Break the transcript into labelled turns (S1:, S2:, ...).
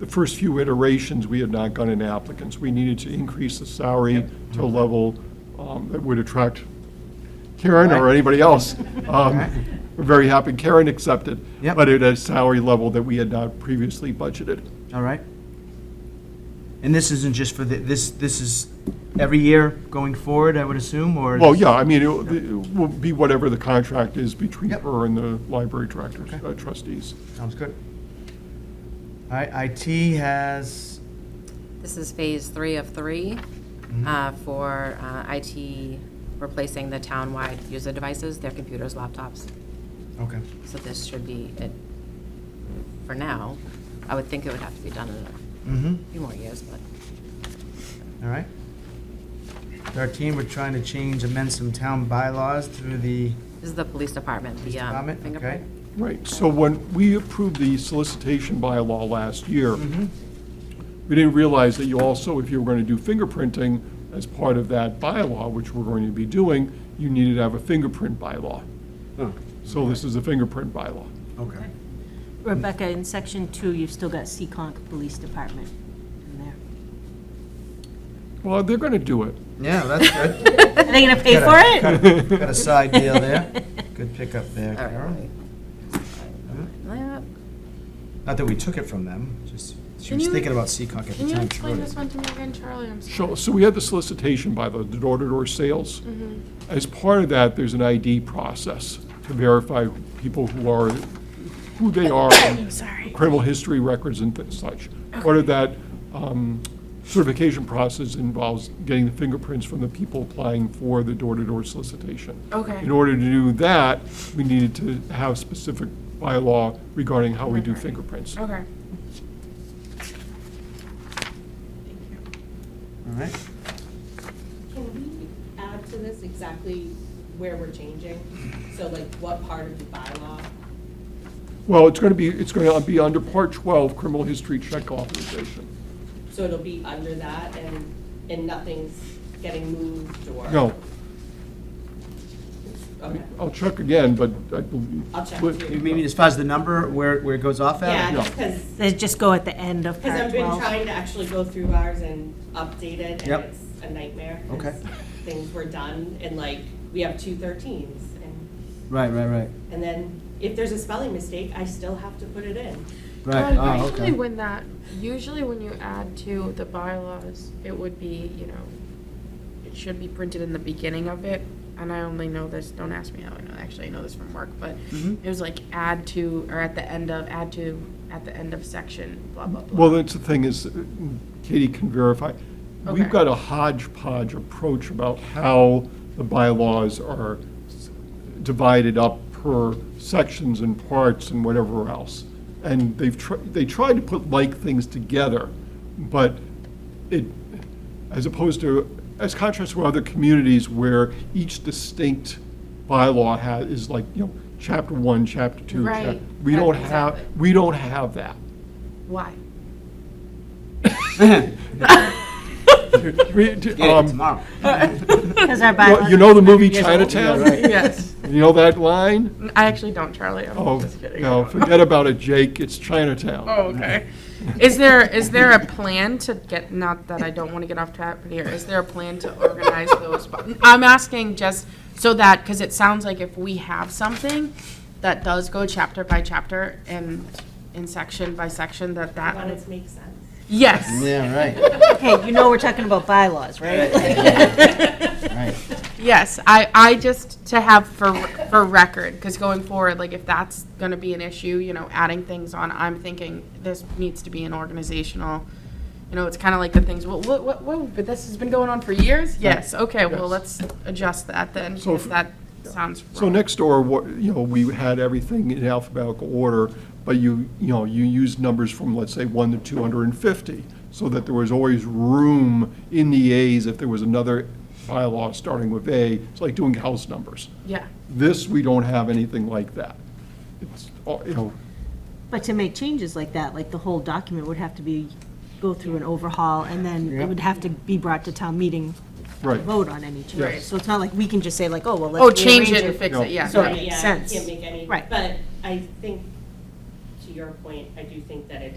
S1: the first few iterations, we had not gotten applicants. We needed to increase the salary to a level um, that would attract Karen or anybody else. Um, We're very happy Karen accepted.
S2: Yep.
S1: But at a salary level that we had not previously budgeted.
S2: All right. And this isn't just for the, this, this is every year going forward, I would assume, or?
S1: Well, yeah, I mean, it will- it will be whatever the contract is between
S2: Yep.
S1: her and the library directors,
S2: Okay.
S1: uh, trustees.
S2: Sounds good. All right, IT has,
S3: This is phase three of three
S2: mm-hmm.
S3: uh, for uh, IT replacing the town-wide user devices, their computers, laptops.
S2: okay,
S3: So this should be it for now. I would think it would have to be done in
S2: mm-hmm,
S3: a few more years, but
S2: all right. Thirteen, we're trying to change, amend some town bylaws through the,
S3: this is the police department, the
S4: Uh,
S3: um,
S2: department, okay.
S3: fingerprint.
S1: Right, so when we approved the solicitation bylaw last year, we didn't realize that you also, if you were going to do fingerprinting as part of that bylaw, which we're going to be doing, you needed to have a fingerprint bylaw. So this is a fingerprint bylaw.
S2: okay,
S5: Rebecca, in section two, you've still got Seekonk Police Department in there.
S1: Well, they're going to do it.
S2: yeah, that's good.
S5: Are they gonna pay for it?
S2: Got a side deal there, good pickup there,
S3: All
S2: Carol.
S3: right. Yeah.
S2: Not that we took it from them, just, she
S4: Can
S2: was
S4: you-
S2: thinking about Seacock at the
S4: Can you
S2: time. she wrote
S4: explain
S2: it.
S4: this one to me again, Charlie? I'm sorry.
S1: So, so we had the solicitation by the door-to-door sales. As part of that, there's an ID process to verify people who are, who they are, and criminal history records and thi- such. Part of that um, certification process involves getting the fingerprints from the people applying for the door-to-door solicitation.
S4: Okay.
S1: In order to do that, we needed to have specific bylaw regarding how we do fingerprints.
S4: Okay.
S2: All right,
S6: Can we add to this exactly where we're changing? So like what part of the bylaw?
S1: Well, it's going to be, it's going to be under Part 12, criminal history check authorization.
S6: So it'll be under that and, and nothing's getting moved or?
S1: No,
S6: Okay.
S1: I'll check again, but I believe.
S6: I'll check
S1: but-
S6: too.
S2: you mean as far as the number, where, where it goes off at?
S6: Yeah,
S1: no.
S6: because,
S5: They just go at the end of
S6: because
S5: part
S6: I've been
S5: 12.
S6: trying to actually go through ours and update it and
S2: Yep.
S6: it's a nightmare. 'cause
S2: Okay.
S6: Things were done and like, we have two thirteens and,
S2: Right, right, right,
S6: and then if there's a spelling mistake, I still have to put it in.
S2: right,
S4: Um,
S2: oh,
S4: Usually
S2: okay.
S4: when that, usually when you add to the bylaws, it would be, you know, it should be printed in the beginning of it. And I only know this, don't ask me how I know, actually I know this from work, but
S1: Mm-hmm.
S4: it was like add to, or at the end of, add to, at the end of section, blah, blah, blah.
S1: Well, that's the thing is, Katie can verify. We've
S4: Okay.
S1: got a hodgepodge approach about how the bylaws are s- divided up per sections and parts and whatever else. And they've, tr- they tried to put like things together, but it, as opposed to, as contrast to other communities where each distinct bylaw has, is like, you know, chapter one, chapter two. chap-
S4: Right,
S1: We
S4: right,
S1: don't have,
S4: exactly.
S1: we don't have that.
S4: Why?
S1: We- d-
S2: Get it
S1: um,
S2: tomorrow.
S5: Because
S1: Well,
S5: our bylaws.
S1: You know the
S5: are
S1: movie
S5: 100 years old.
S1: Chinatown?
S4: Yes.
S1: You know that line?
S4: I actually don't, Charlie. I'm
S1: Oh,
S4: just kidding.
S1: no, forget about it, Jake, it's Chinatown.
S4: Oh, okay. Is there, is there a plan to get, not that I don't want to get off track here, is there a plan to organize those? bu- I'm asking just so that, because it sounds like if we have something that does go chapter by chapter and in section by section, that
S6: That
S4: that,
S6: it makes sense.
S4: yes,
S2: Yeah, right,
S5: Okay, you know we're talking about bylaws, right?
S2: right.
S4: yes. I, I just, to have for, for record, because going forward, like if that's going to be an issue, you know, adding things on, I'm thinking this needs to be an organizational, You know, it's kind of like the things, well, what, what, whoa, but this has been going on for years? Yes, okay, well,
S1: Yes.
S4: let's adjust that then,
S1: So
S4: because
S1: if-
S4: that sounds
S1: So
S4: wrong.
S1: next door, what, you know, we had everything in alphabetical order, but you, you know, you used numbers from, let's say, one to two hundred and fifty, so that there was always room in the As if there was another bylaw starting with A. It's like doing house numbers.
S4: Yeah,
S1: This, we don't have anything like that. It's, oh, all- you know,
S5: But to make changes like that, like the whole document would have to be, go through an overhaul, and then it would have to be brought to town meeting to
S1: right.
S5: vote on any
S1: Right.
S5: changes. So it's not like we can just say like, oh, well, let's.
S4: oh, change
S5: rearrange
S4: it and fix
S1: No.
S4: it, yeah.
S5: So-
S4: yeah.
S5: makes
S6: Yeah, you
S5: sense.
S6: can't make any.
S5: Right.
S6: But I think, to your point, I do think that it